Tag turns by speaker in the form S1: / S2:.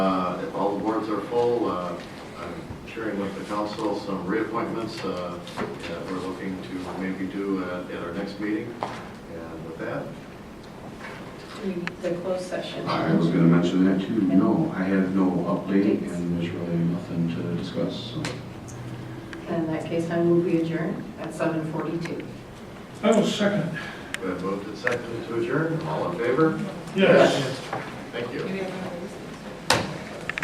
S1: Uh, are full. Uh, I'm sharing with the council some reappointments uh, that we're looking to maybe do uh, at our next meeting. And with that,
S2: We need the closed session.
S3: I was gonna mention that too. No, I have no update and there's really nothing to discuss, so.
S2: In that case, I move we adjourn at 7:42.
S4: I will second.
S1: we have moved and seconded to adjourn. All in favor?
S4: Yes.
S1: Thank you.
S5: Maybe I can raise